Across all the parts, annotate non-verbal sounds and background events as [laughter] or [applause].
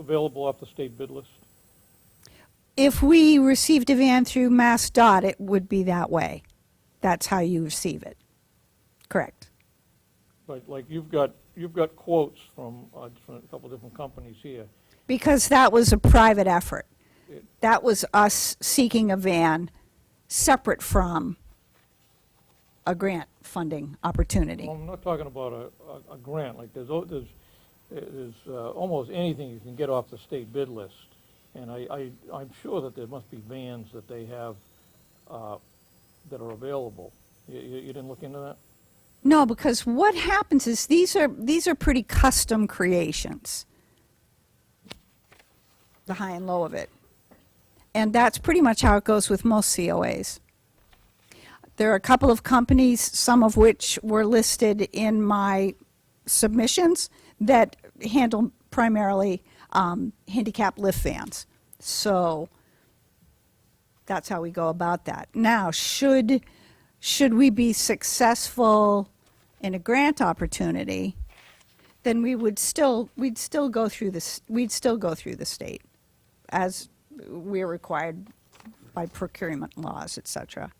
available off the state bid list? If we received a van through Mass Dot, it would be that way. That's how you receive it. Correct. Like, like you've got, you've got quotes from a different- a couple different companies here. Because that was a private effort. That was us seeking a van separate from a grant funding opportunity. Well, I'm not talking about a, a, a grant, like there's, o- there's, there's uh, almost anything you can get off the state bid list. And I, I, I'm sure that there must be vans that they have, uh, that are available. You, you you didn't look into that? No, because what happens is these are, these are pretty custom creations, the high and low of it. And that's pretty much how it goes with most COAs. There are a couple of companies, some of which were listed in my submissions, that handle primarily um, handicap lift vans. So that's how we go about that. Now, should, should we be successful in a grant opportunity, then we would still, we'd still go through this, we'd still go through the state as we're required by procurement laws, et cetera.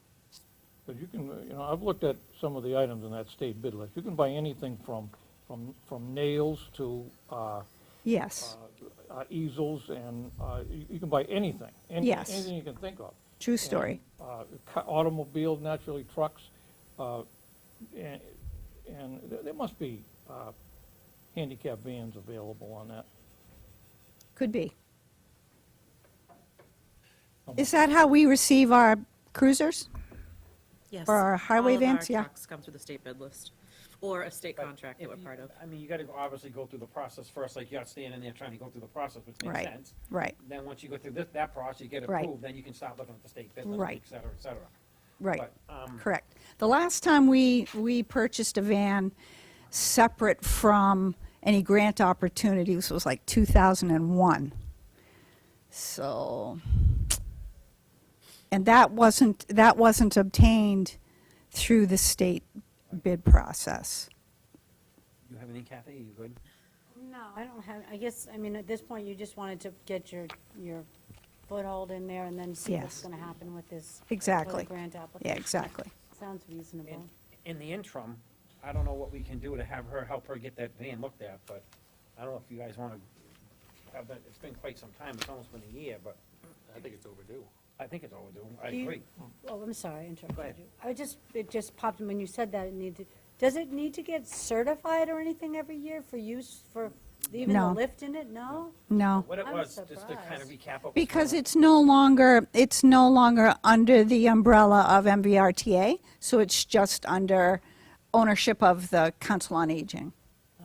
But you can, uh, you know, I've looked at some of the items in that state bid list. You can buy anything from, from, from nails to, uh, Yes, uh, easels and, uh, you, you can buy anything. any- Yes. Anything you can think of. true story. And, uh, ca- Automobile, naturally trucks, uh, and, and there- there must be, uh, handicap vans available on that. Could be. Um, Is that how we receive our cruisers? Yes. For our highway vans, yeah. All of our trucks come through the state bid list, or a state contract that If we're you- part of. I mean, you gotta go- obviously go through the process first, like you're not standing there trying to go through the process, which makes Right, sense. right, Then once you go through this, that process, you get Right. approved, then you can start looking at the state bid list, Right. et cetera, et cetera. right. But, um, Correct. The last time we, we purchased a van separate from any grant opportunities was like 2001. So, and that wasn't, that wasn't obtained through the state bid process. you have anything, Kathy? You good? No, I don't have, I guess, I mean, at this point, you just wanted to get your, your foothold in there and then see Yes. what's gonna happen with this. with the Exactly. grant Yeah, application. exactly. Sounds reasonable. In, in the interim, I don't know what we can do to have her, help her get that van looked at, but I don't know if you guys wanna have that, it's been quite some time, it's almost been a year, but I think it's overdue. I think it's overdue. I Do you- agree. Oh, I'm sorry, I Go ahead. interrupted you. I just, it just popped in when you said that, it needed, does it need to get certified or anything every year for use, for even the No. lift in it? No? No. What it I'm was, just to kind of surprised. recap. what was Because going on. it's no longer, it's no longer under the umbrella of MVRTA, so it's just under ownership of the Council on Aging. Oh.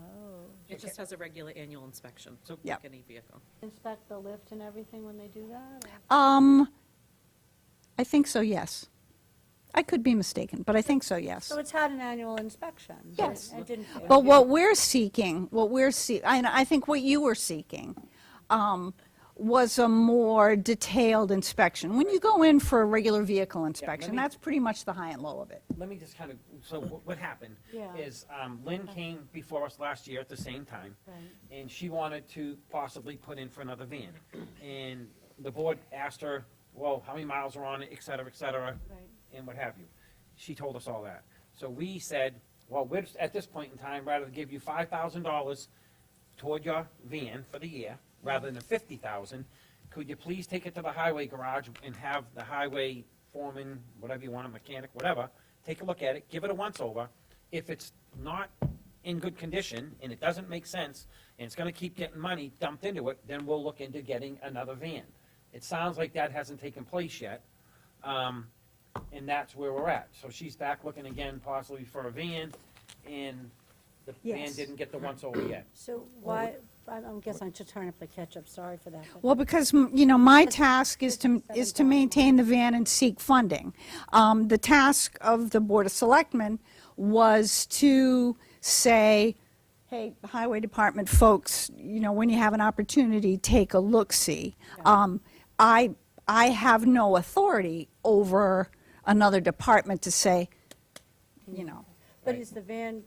It just has a regular annual inspection, so Yep. like any vehicle. Inspect the lift and everything when they do that? or- Um, I think so, yes. I could be mistaken, but I think so, yes. So it's had an annual inspection? but Yes. It didn't. But what we're seeking, what we're see, and I think what you were seeking, um, was a more detailed inspection. When you go in for a regular vehicle inspection, me- that's pretty much the high and low of it. let me just kind of, so what, what happened [laughs] Yeah. is um, Lynn came before us last year at the same time, Right. and she wanted to possibly put in for another van. And the board asked her, well, how many miles are on it, et cetera, et cetera, Right. and what have you. She told us all that. So we said, well, we're, at this point in time, rather than give you five thousand dollars toward your van for the year, rather than the fifty thousand, could you please take it to the highway garage and have the highway foreman, whatever you want, a mechanic, whatever, take a look at it, give it a once-over. If it's not in good condition and it doesn't make sense, and it's gonna keep getting money dumped into it, then we'll look into getting another van. It sounds like that hasn't taken place yet. Um, and that's where we're at. So she's back looking again possibly for a van, and the van Yes. didn't get the once-over yet. So why, I I guess I'm just trying to play catch-up, sorry for that. but- Well, because, m- you know, my task is to, is to maintain the van and seek funding. Um, The task of the Board of Selectmen was to say, hey, Highway Department folks, you know, when you have an opportunity, take a look-see. Um, I, I have no authority over another department to say, you know, But is the van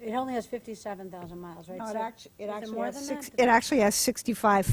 It only has fifty-seven thousand miles, right? No, it So act- it is actually more has than six- that? It actually has 65